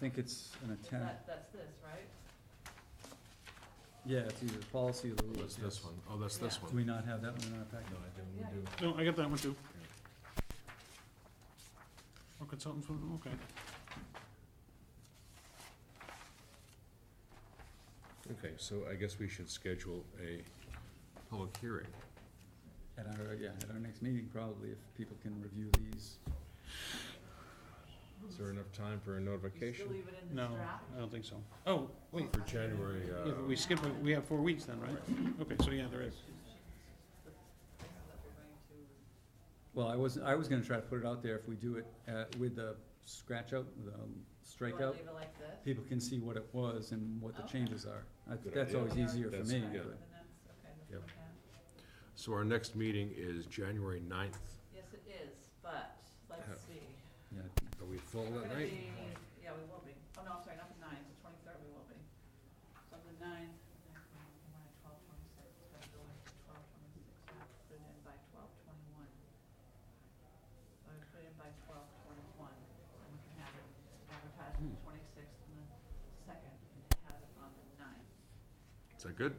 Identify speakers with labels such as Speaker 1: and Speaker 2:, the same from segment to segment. Speaker 1: think it's an attempt,
Speaker 2: That, that's this, right?
Speaker 1: yeah, it's either policy or the rules.
Speaker 3: What's this
Speaker 1: yes.
Speaker 3: one? Oh, that's this
Speaker 2: Yeah.
Speaker 1: Do we
Speaker 3: one.
Speaker 1: not have that one in our
Speaker 3: No,
Speaker 1: packet?
Speaker 3: I didn't, we do.
Speaker 4: No, I got that one too. Or consultants, with them, okay.
Speaker 3: Okay, so I guess we should schedule a public hearing.
Speaker 1: At our, yeah, at our next meeting probably, if people can review these.
Speaker 3: Is there enough time for a
Speaker 2: You still
Speaker 3: notification?
Speaker 2: leave it in this
Speaker 4: No,
Speaker 2: draft?
Speaker 4: I don't think so. Oh, wait,
Speaker 3: For January,
Speaker 4: yeah,
Speaker 3: uh.
Speaker 4: but we skip, it. we have four weeks then, right? Okay, so yeah, there is.
Speaker 2: That we're going to,
Speaker 1: Well, I was, I was gonna try to put it out there if we do it, uh, with the scratch out, the
Speaker 2: you wanna
Speaker 1: strikeout.
Speaker 2: leave it like this?
Speaker 1: People can see what it was and what the
Speaker 2: Okay.
Speaker 1: changes are. I think
Speaker 3: Good
Speaker 1: That's
Speaker 3: idea.
Speaker 1: always easier for
Speaker 3: That's-
Speaker 1: me,
Speaker 3: yeah.
Speaker 1: but,
Speaker 2: And that's, okay, that's
Speaker 3: Yep.
Speaker 2: what I have.
Speaker 3: So our next meeting is January ninth.
Speaker 2: Yes, it is, but,
Speaker 3: Yeah.
Speaker 2: let's see.
Speaker 1: yeah,
Speaker 3: Are we full
Speaker 2: We're
Speaker 3: that
Speaker 2: gonna
Speaker 3: night?
Speaker 2: be, yeah, we will be. Oh, no, I'm sorry, not the ninth, the twenty-third we will be. So the ninth, we're at twelve twenty-six, it's gotta go like twelve twenty-six, we have to put it in by twelve twenty-one. So we put it in by twelve twenty-one, and we can have it advertised on the twenty-sixth and the second, and have it on the ninth.
Speaker 3: Is that good?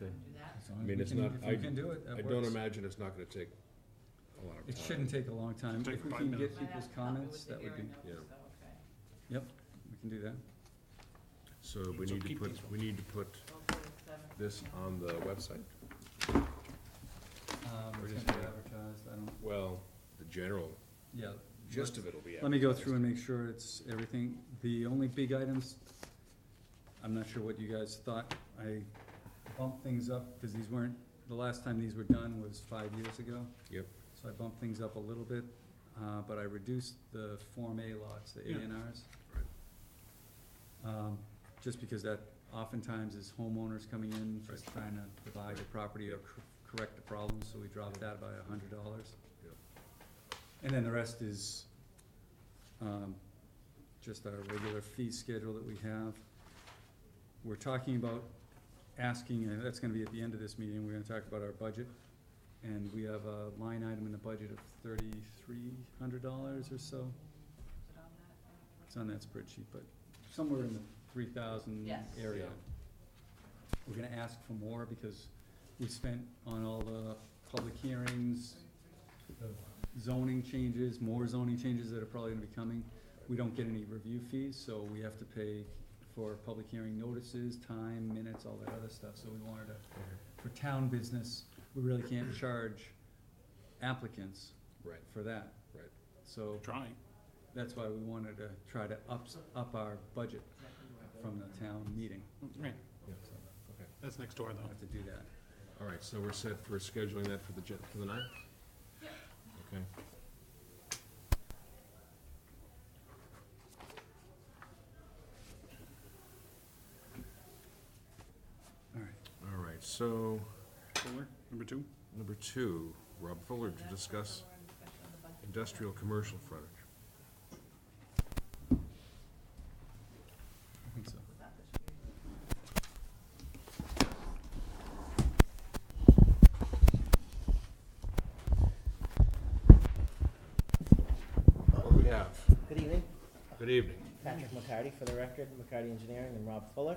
Speaker 3: Okay.
Speaker 2: Do that?
Speaker 1: as long
Speaker 3: I
Speaker 1: as
Speaker 3: mean,
Speaker 1: we
Speaker 3: it's
Speaker 1: can-
Speaker 3: not-
Speaker 1: if we
Speaker 3: I-
Speaker 1: can do it, that
Speaker 3: I
Speaker 1: works.
Speaker 3: don't imagine it's not gonna take a lot of time.
Speaker 1: It shouldn't take a long time.
Speaker 4: Take
Speaker 1: If we
Speaker 4: five
Speaker 1: can
Speaker 4: minutes.
Speaker 1: get
Speaker 2: By that
Speaker 1: people's
Speaker 2: time, it
Speaker 1: comments,
Speaker 2: the
Speaker 1: that would be,
Speaker 2: hearing notice, though, okay.
Speaker 1: we can do that.
Speaker 3: So we
Speaker 4: So
Speaker 3: need to
Speaker 4: keep
Speaker 3: put,
Speaker 4: these ones.
Speaker 3: we need to put
Speaker 2: Go for the seventh.
Speaker 3: this on the website?
Speaker 1: Um,
Speaker 3: Or
Speaker 1: it's
Speaker 3: just
Speaker 1: gonna be
Speaker 3: do it.
Speaker 1: advertised, I don't,
Speaker 3: Well, the general
Speaker 1: yeah.
Speaker 3: gist of it'll be.
Speaker 1: Let me go through and make sure it's everything. The only big items, I'm not sure what you guys thought. I bumped things up, cause these weren't, the last time these were done was five years ago.
Speaker 3: Yep.
Speaker 1: So I bumped things up a little bit, uh, but I reduced the Form A lots, the A
Speaker 4: Yeah.
Speaker 1: and Rs.
Speaker 3: Right.
Speaker 1: Um, just because that oftentimes is homeowners coming in, just trying to divide the property or cor- correct the problem, so we dropped that by a hundred dollars.
Speaker 3: Yep.
Speaker 1: And then the rest is, um, just our regular fee schedule that we have. We're talking about asking, and that's gonna be at the end of this meeting, we're gonna talk about our budget. And we have a line item in the budget of thirty-three hundred dollars or so.
Speaker 2: Is it on that?
Speaker 1: It's on that spreadsheet, but somewhere in the three thousand
Speaker 2: Yes.
Speaker 1: area.
Speaker 3: Yeah.
Speaker 1: We're gonna ask for more because we spent on all the public hearings, the zoning changes, more zoning changes that are probably gonna be coming. We don't get any review fees, so we have to pay for public hearing notices, time, minutes, all that other stuff, so we wanted to for town business, we really can't charge applicants
Speaker 3: Right,
Speaker 1: for that.
Speaker 3: Right.
Speaker 1: So
Speaker 4: Trying.
Speaker 1: that's why we wanted to try to ups, up our budget from the town meeting.
Speaker 4: Right,
Speaker 3: okay.
Speaker 4: that's next door
Speaker 1: We'll
Speaker 4: though.
Speaker 1: have to do that.
Speaker 3: All right, so we're set for scheduling that for the, gen- for the ninth? Okay.
Speaker 1: All right.
Speaker 3: All right, so
Speaker 4: Fuller, number two.
Speaker 3: number two, Rob Fuller to discuss
Speaker 2: We're in discussion on the budget.
Speaker 3: industrial commercial frontage.
Speaker 1: I think so.
Speaker 2: That should be-
Speaker 3: What do we have?
Speaker 5: Good evening.
Speaker 3: Good evening.
Speaker 5: Patrick McCarty for the record, McCarty Engineering, and Rob Fuller.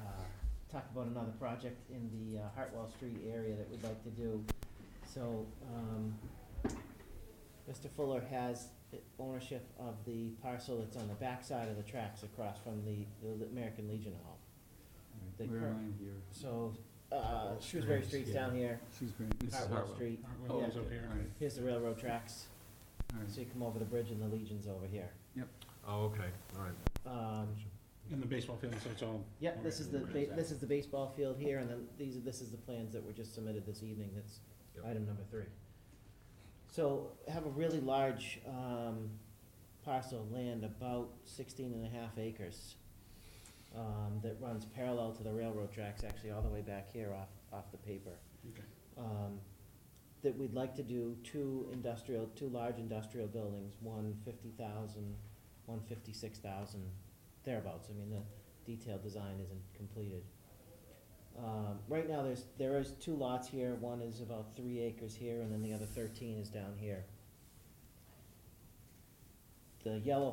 Speaker 5: Uh, Talked about another project in the uh, Hartwell Street area that we'd like to do. So, um, Mr. Fuller has i- ownership of the parcel that's on the backside of the tracks across from the the American Legion Hall. The
Speaker 1: Where
Speaker 5: current-
Speaker 1: am I here?
Speaker 5: So, uh, Shrewsbury Street's down here,
Speaker 1: She's been, this is
Speaker 5: Hartwell
Speaker 1: Hartwell.
Speaker 5: Street,
Speaker 4: Oh,
Speaker 5: yeah.
Speaker 4: it's over here.
Speaker 1: All right,
Speaker 5: here's the railroad tracks,
Speaker 1: all right.
Speaker 5: so you come over the bridge and the Legion's over here.
Speaker 3: Oh, okay, all right.
Speaker 5: Um,
Speaker 4: And the baseball field, so it's all,
Speaker 5: Yep, this is the,
Speaker 4: Where
Speaker 5: ba-
Speaker 4: is that?
Speaker 5: this is the baseball field here, and then these, are this is the plans that were just submitted this evening, that's
Speaker 3: Yep.
Speaker 5: item number three. So, have a really large, um, parcel of land, about sixteen and a half acres, um, that runs parallel to the railroad tracks, actually, all the way back here off, off the paper
Speaker 4: okay.
Speaker 5: um, that we'd like to do two industrial, two large industrial buildings, one fifty thousand, one fifty-six thousand, thereabouts, I mean, the detailed design isn't completed. Um, right now, there's, there is two lots here, one is about three acres here, and then the other thirteen is down here. The yellow